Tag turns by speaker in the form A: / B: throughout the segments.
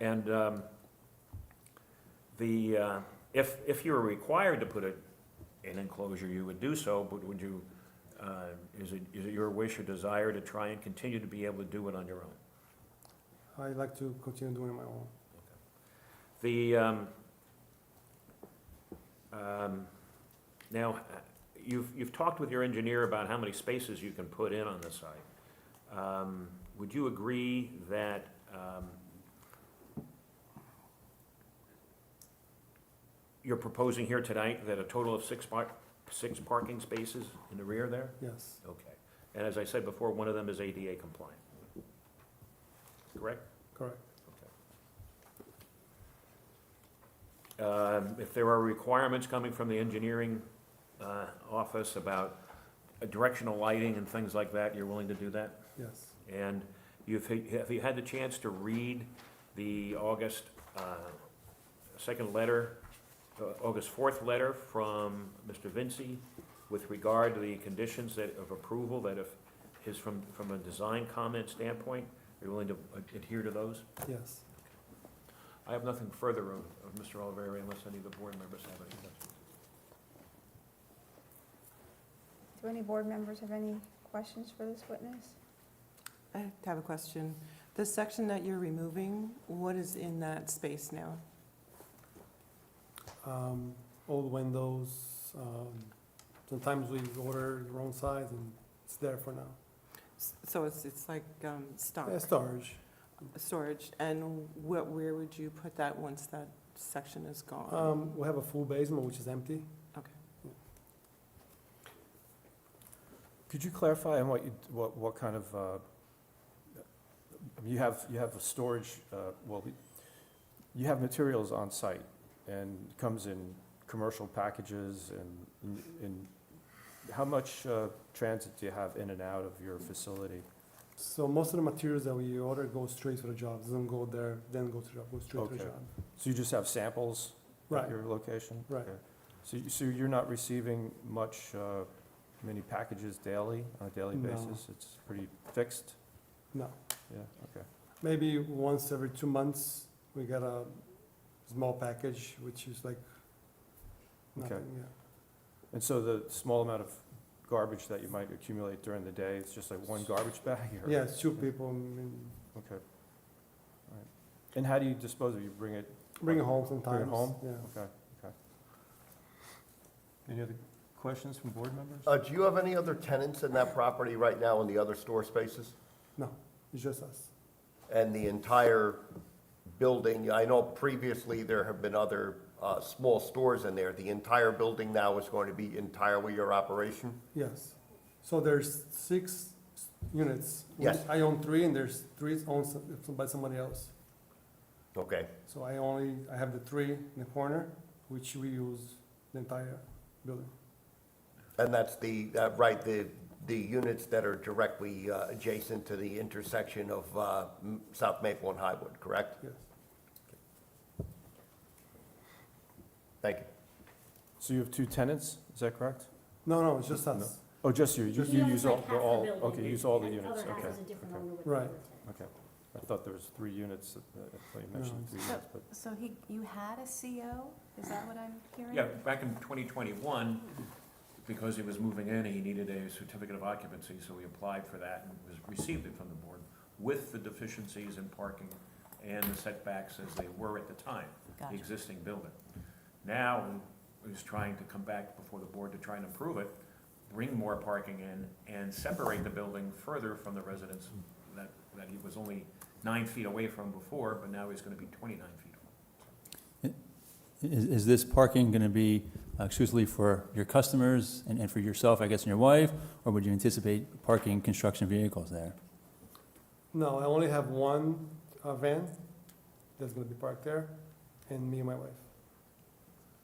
A: And um, the, uh, if, if you were required to put a- an enclosure, you would do so, but would you, uh, is it, is it your wish or desire to try and continue to be able to do it on your own?
B: I like to continue doing my own.
A: The, um, um, now, uh, you've, you've talked with your engineer about how many spaces you can put in on the site. Um, Would you agree that, um, you're proposing here tonight that a total of six par, six parking spaces in the rear there?
B: Yes,
A: Okay. And as I said before, one of them is ADA compliant. Correct?
B: correct.
A: Um, If there are requirements coming from the engineering uh, office about directional lighting and things like that, you're willing to do that?
B: Yes,
A: And you've, have you had the chance to read the August uh, second letter, uh, August fourth letter from Mr. Vinci with regard to the conditions that, of approval, that if, his, from, from a design comment standpoint, are you willing to adhere to those?
B: yes.
A: I have nothing further of, of Mr. Oliveri unless any of the board members have any questions.
C: Do any board members have any questions for this witness?
D: I have a question. The section that you're removing, what is in that space now?
B: Um, Old windows, um, sometimes we order the wrong size and it's there for now.
D: S- So it's, it's like um, stock?
B: Yeah, Storage,
D: Storage, and what, where would you put that once that section is gone?
B: um, we have a full basement which is empty.
E: Could you clarify on what you, what, what kind of, uh, I mean, you have, you have a storage, uh, well, you have materials on site and it comes in commercial packages and, and how much uh, transit do you have in and out of your facility?
B: So most of the materials that we order go straight to the job, doesn't go there, then go to the job, go straight to the
E: Okay.
B: job.
E: So you just have samples
B: Right,
E: at your location?
B: Right.
E: Okay. So, you- so you're not receiving much, uh, many packages daily, on a daily
B: No.
E: basis? It's pretty fixed?
B: No.
E: Yeah, okay.
B: maybe once every two months, we get a small package, which is like
E: Okay.
B: nothing, yeah.
E: And so the small amount of garbage that you might accumulate during the day, it's just like one garbage bag? or-
B: Yeah, it's two people, I mean,
E: Okay. All right. And how do you dispose of it? You bring it,
B: bring it home sometimes.
E: home?
B: Yeah.
E: okay, okay. Any other questions from board members?
F: Uh, do you have any other tenants in that property right now in the other store spaces?
B: No, it's just us.
F: And the entire building, I know previously there have been other, uh, small stores in there. The entire building now is going to be entirely your operation?
B: Yes. So there's six s- units.
F: Yes.
B: I own three, and there's three owned s- by somebody else.
F: Okay,
B: So I only, I have the three in the corner, which we use the entire building.
F: and that's the, uh, right, the, the units that are directly, uh, adjacent to the intersection of, uh, M- South Maple and Highwood, correct?
B: Yes.
F: Thank you.
E: So you have two tenants, is that correct?
B: No, no, it's just
E: No.
B: us.
E: Oh, just you, you
G: He
E: you
G: owns
E: use
G: like
E: all,
G: half
E: they're
G: the
E: all,
G: building,
E: okay, you
G: and
E: use all the
G: other
E: units,
G: half
E: okay.
G: is a different
E: okay.
G: owner with
B: Right.
G: another tenant.
E: Okay, I thought there was three units, that- that- I thought you mentioned three
B: it's-
E: units, but.
H: So he, you had a CO, is that what I'm hearing?
A: Yeah, back in 2021, because he was moving in, he needed a certificate of occupancy, so he applied for that and was, received it from the board with the deficiencies in parking and the setbacks as they were at the time, the
H: Gotcha.
A: existing building. Now, he's trying to come back before the board to try and improve it, bring more parking in, and separate the building further from the residents that, that he was only nine feet away from before, but now he's gonna be 29 feet away.
I: Is, is this parking going to be exclusively for your customers and, and for yourself, I guess, and your wife? Or would you anticipate parking construction vehicles there?
B: No, I only have one uh, van that's gonna be parked there, and me and my wife.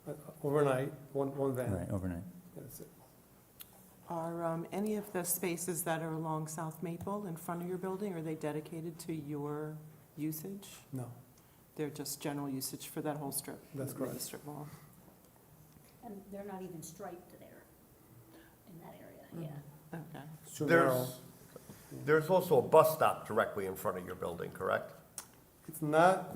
B: Uh, Overnight, one, one van,
I: Right, overnight?
B: that's it.
D: Are um, any of the spaces that are along South Maple in front of your building, are they dedicated to your usage?
B: No,
D: They're just general usage for that whole strip?
B: That's
D: the
B: correct.
D: Strip mall?
G: And they're not even striped there, in that
D: Mm-hmm.
G: area, yeah.
D: Okay.
B: it's too narrow.
F: There's, there's also a bus stop directly in front of your building, correct?
B: It's not